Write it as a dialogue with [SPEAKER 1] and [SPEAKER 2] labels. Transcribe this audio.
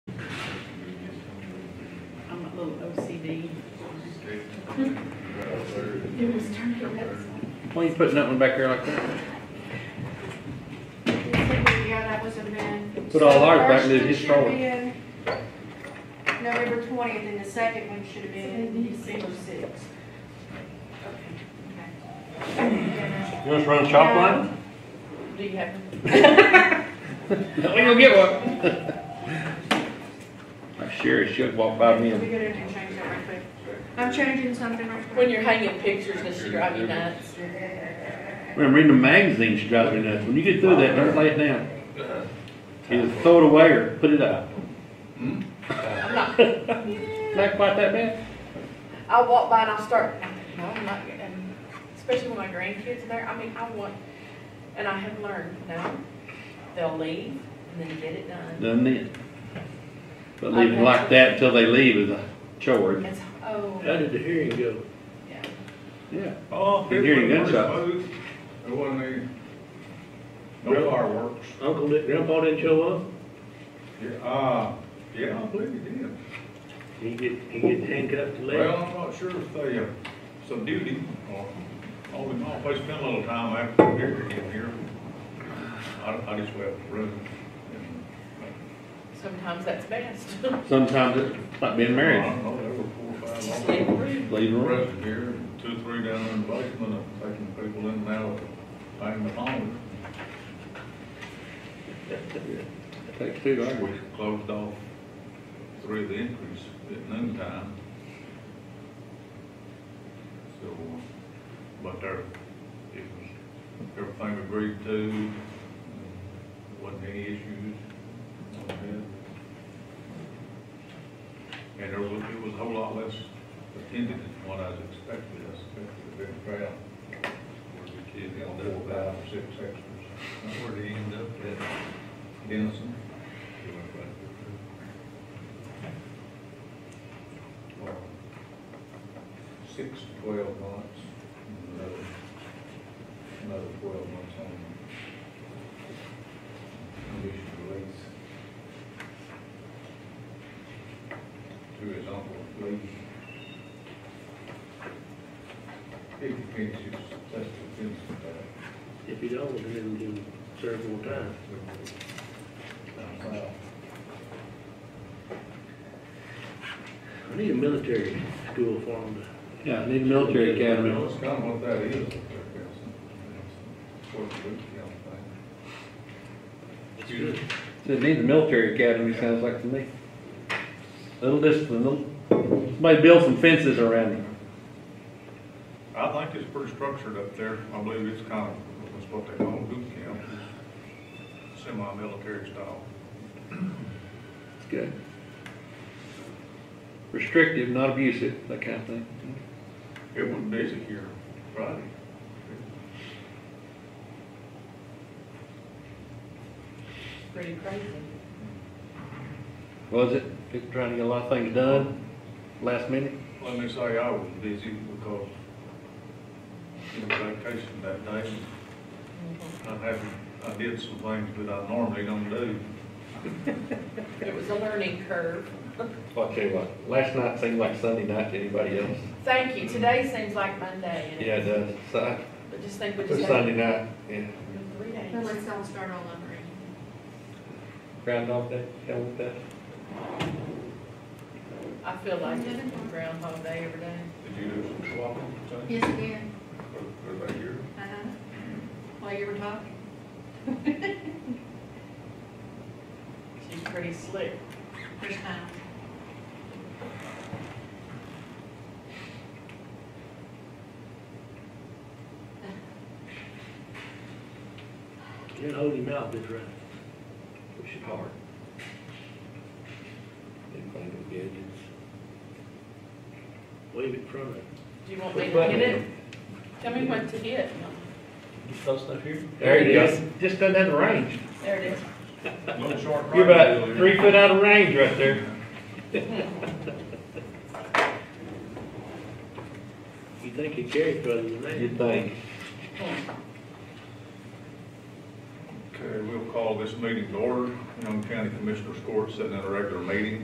[SPEAKER 1] I'm a little OCD.
[SPEAKER 2] It was turned around.
[SPEAKER 3] Why are you putting that one back there like that?
[SPEAKER 2] Yeah, that was a man.
[SPEAKER 3] Put all ours back in his drawer.
[SPEAKER 2] November twentieth, and the second one should have been December sixth.
[SPEAKER 3] You want us to run a
[SPEAKER 2] shop
[SPEAKER 3] shop
[SPEAKER 2] line?
[SPEAKER 3] line?
[SPEAKER 1] Do you have?
[SPEAKER 3] No, we gonna get one. I sure as shit walked by me
[SPEAKER 2] We're
[SPEAKER 3] and
[SPEAKER 2] gonna have to change that right quick. I'm changing something right quick.
[SPEAKER 1] When you're hanging pictures and she drive you nuts.
[SPEAKER 3] when I'm reading the magazine, she drives me nuts. When you get through that, don't lay it down. Either throw it away or put it out.
[SPEAKER 1] I'm not,
[SPEAKER 3] Not quite that bad.
[SPEAKER 1] I'll walk by and I'll start, no, I'm not, and especially when my grandkids are there, I mean, I want, and I have learned, no, they'll leave and then get it done.
[SPEAKER 3] Done then. But leaving it like that until they leave is a chore.
[SPEAKER 1] It's, oh,
[SPEAKER 4] How did the hearing go?
[SPEAKER 1] yeah.
[SPEAKER 3] Yeah.
[SPEAKER 5] Oh,
[SPEAKER 3] Been hearing gunshots.
[SPEAKER 5] It wasn't any, no fireworks.
[SPEAKER 4] Uncle, did- grandpa didn't show up?
[SPEAKER 5] Yeah, Uh, yeah, I believe it did.
[SPEAKER 4] He get, he get handcuffed to
[SPEAKER 5] Well,
[SPEAKER 4] leg?
[SPEAKER 5] I'm not sure if they, uh, subdued him or, oh, all in all, they spent a little time after the hearing came here. I, I just went to the room.
[SPEAKER 1] Sometimes that's best.
[SPEAKER 3] Sometimes it's like being
[SPEAKER 5] I
[SPEAKER 3] married.
[SPEAKER 5] don't know, there were four or five.
[SPEAKER 1] Yeah.
[SPEAKER 5] of them.
[SPEAKER 3] Leave
[SPEAKER 5] The
[SPEAKER 3] the room.
[SPEAKER 5] rest of here, and two or three down in the basement, and taking people in and out, banging the phone.
[SPEAKER 3] Takes two, don't
[SPEAKER 5] We
[SPEAKER 3] it?
[SPEAKER 5] closed off three of the entries at noon time. So, but there, it was, everything agreed to, wasn't any issues. all that. And there was, it was a whole lot less attended than what I was expecting, I expected a big crowd. Where the kids got four, five, or six extras. That's where they ended up at Denison. Six, to twelve months, and another, another twelve months on conditional release. To his uncle, Lee. If he finishes, that's the finish of that.
[SPEAKER 4] If he don't, then he can serve
[SPEAKER 5] uh,
[SPEAKER 4] more time.
[SPEAKER 5] Down south.
[SPEAKER 4] I need a military school for him
[SPEAKER 3] Yeah, need a military academy.
[SPEAKER 5] That's kind of what that is, up there, Council. Sort of boot camp thing.
[SPEAKER 4] to, it's good.
[SPEAKER 3] So it needs a military academy, sounds like to me. Little discipline, little, somebody build some fences around it.
[SPEAKER 5] I think it's pretty structured up there. I believe it's kind of, it's what they call boot camp, semi-military style.
[SPEAKER 3] It's good. Restrictive, not abusive, that kind of thing.
[SPEAKER 5] It was busy here Friday.
[SPEAKER 1] Pretty crazy.
[SPEAKER 3] Was it? People trying to get a lot of things done last minute?
[SPEAKER 5] Let me say, I was busy because it was vacation that day. I had, I did some things that I normally don't do.
[SPEAKER 1] It was a learning curve.
[SPEAKER 3] Well, I tell you what, last night seemed like Sunday night to anybody else.
[SPEAKER 1] Thank you. Today seems like Monday. and
[SPEAKER 3] Yeah, it does. So,
[SPEAKER 1] But just think we
[SPEAKER 3] it's
[SPEAKER 1] just had
[SPEAKER 3] Sunday night, yeah.
[SPEAKER 1] three days.
[SPEAKER 2] No, let's all start all over again.
[SPEAKER 3] Groundhog Day, hell with that.
[SPEAKER 1] I feel like it's Groundhog Day every day.
[SPEAKER 5] Did you do some swapping, Sonny?
[SPEAKER 2] Yes, again,
[SPEAKER 5] Or- or back here?
[SPEAKER 2] uh-huh, while you were talking.
[SPEAKER 1] She's pretty slick.
[SPEAKER 2] First time.
[SPEAKER 4] Can't hold him out this round.
[SPEAKER 3] Push it hard. Didn't find the gadgets.
[SPEAKER 4] Wave it from him.
[SPEAKER 1] Do you want me to hit it? Tell me what to hit.
[SPEAKER 3] Close enough here? There it is. Just doesn't have the range.
[SPEAKER 1] There it is.
[SPEAKER 5] Little short.
[SPEAKER 3] You're
[SPEAKER 5] right
[SPEAKER 3] about
[SPEAKER 5] there.
[SPEAKER 3] three foot out of range right there.
[SPEAKER 4] You think he carried further than that?
[SPEAKER 3] You'd think.
[SPEAKER 5] Okay, we'll call this meeting to order. Young County Commissioners Court sitting in a regular meeting.